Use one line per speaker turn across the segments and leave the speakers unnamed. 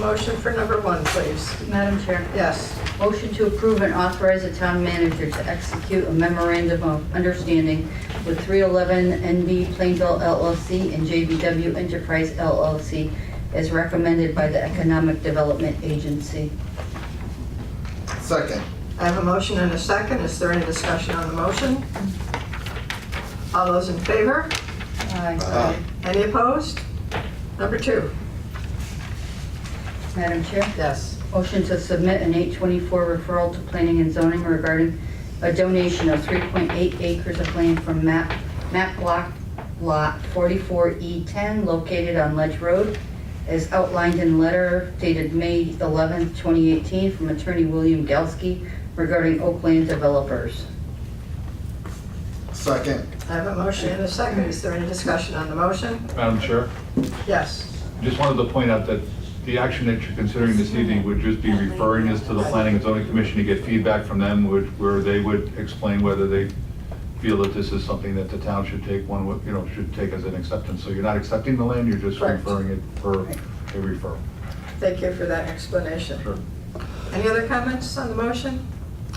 Motion for number one, please.
Madam Chair,
Yes.
motion to approve and authorize the town manager to execute a memorandum of understanding with 311 NB Plainville LLC and JBW Enterprise LLC as recommended by the Economic Development Agency.
Second.
I have a motion and a second. Is there any discussion on the motion? All those in favor?
Aye.
Any opposed? Number two.
Madam Chair,
Yes.
motion to submit an 824 referral to planning and zoning regarding a donation of 3.8 acres of land from map, map block lot 44E10 located on Ledge Road as outlined in letter dated May 11, 2018 from attorney William Galsky regarding Oakland developers.
Second.
I have a motion and a second. Is there any discussion on the motion?
Madam Chair,
Yes.
just wanted to point out that the action that you're considering this evening would just be referring this to the Planning and Zoning Commission to get feedback from them, would, where they would explain whether they feel that this is something that the town should take one, with- you know, should take as an acceptance. So you're not accepting the land, you're just
Correct.
referring it for a referral.
Thank you for that explanation.
Sure.
Any other comments on the motion?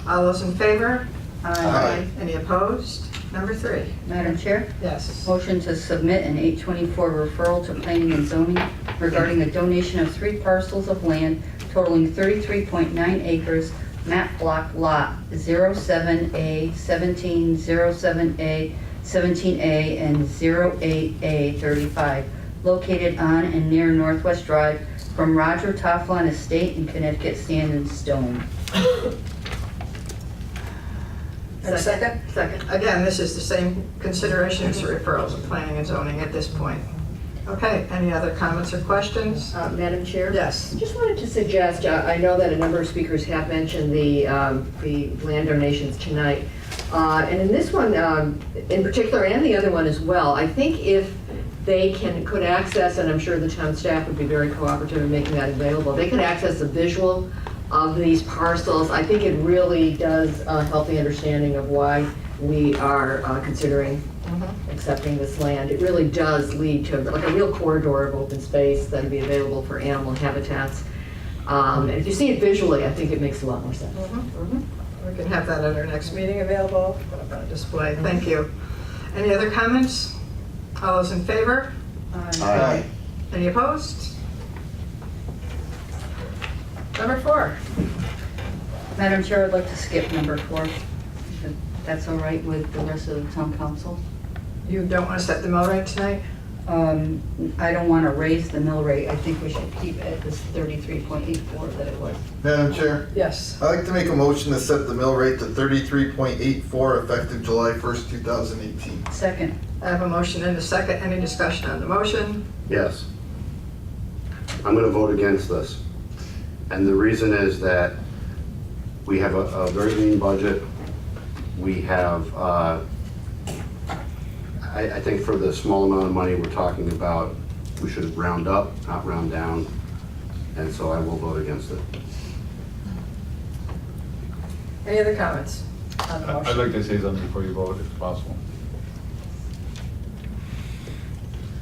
All those in favor?
Aye.
Any opposed? Number three.
Madam Chair?
Yes.
Motion to submit an 824 referral to planning and zoning regarding a donation of three parcels of land totaling 33.9 acres, map block lot 07A, 1707A, 17A, and 08A35, located on and near Northwest Drive from Roger Tofflon Estate in Connecticut Sand and Stone.
And second?
Second.
Again, this is the same consideration as the referrals of planning and zoning at this point. Okay, any other comments or questions?
Uh, Madam Chair?
Yes.
Just wanted to suggest, uh, I know that a number of speakers have mentioned the, um, the land donations tonight. Uh, And in this one, um, in particular, and the other one as well, I think if they can, could access, and I'm sure the town staff would be very cooperative in making that available, they could access a visual of these parcels. I think it really does uh, help the understanding of why we are uh, considering accepting this land, it really does lead to like a real corridor of open space that'd be available for animal habitats. Um, and if you see it visually, I think it makes a lot more sense.
Mm-hmm, We can have that at our next meeting available on display. Thank you. Any other comments? All those in favor?
Aye.
Any opposed? Number four.
Madam Chair, I'd like to skip number four. if That's all right with the rest of the town council?
You don't want to set the mill rate tonight?
Um, I don't want to raise the mill rate. I think we should keep it at this 33.84 that it was.
Madam Chair,
Yes.
I'd like to make a motion to set the mill rate to thirty-three point eight four effective July first, two thousand eighteen.
Second,
I have a motion and a second. Any discussion on the motion?
Yes. I'm going to vote against this. And the reason is that we have a, a very lean budget. We have, uh, I, I think for the small amount of money we're talking about, we should round up, not round down. And so I will vote against it.
Any other comments on the
I- I'd like
motion?
to say something before you vote, if possible.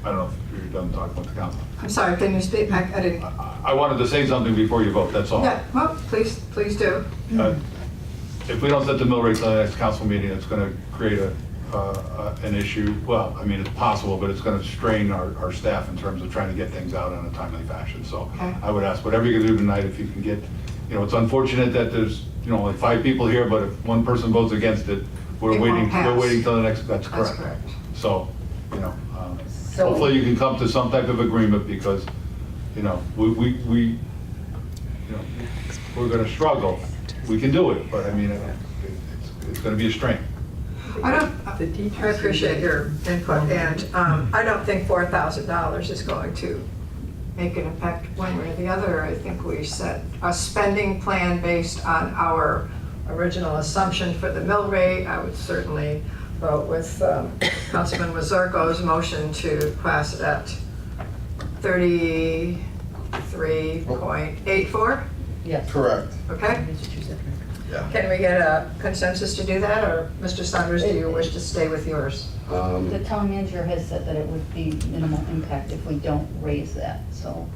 I don't know if you're done talking with the council.
I'm sorry, can you speak? I I didn't.
I- I wanted to say something before you vote, that's all.
Yeah, well, please, please do.
Uh, If we don't set the mill rate to the next council meeting, it's going to create a, uh, uh, an issue, well, I mean, it's possible, but it's going to strain our, our staff in terms of trying to get things out in a timely fashion. So
Okay.
I would ask, whatever you can do tonight, if you can get, you know, it's unfortunate that there's, you know, only five people here, but if one person votes against it,
It
we're
won't
waiting,
pass.
we're waiting till the next, that's
That's
correct.
correct.
So, you know, um,
So-
hopefully you can come to some type of agreement because, you know, we, we, we, you know, we're gonna struggle. We can do it, but I mean, it- it's, it's gonna be a strain.
I don't, I appreciate your input, and um, I don't think $4,000 is going to make an impact one way or the other. I think we set a spending plan based on our original assumption for the mill rate. I would certainly vote with um, Councilman Wazirko's motion to class it at 33.84,
Yes.
Correct.
okay?
That's what you said, right?
Yeah.
Can we get a consensus to do that, or Mr. Saunders, do you wish to stay with yours?
Um,
the town manager has said that it would be minimal impact if we don't raise that, so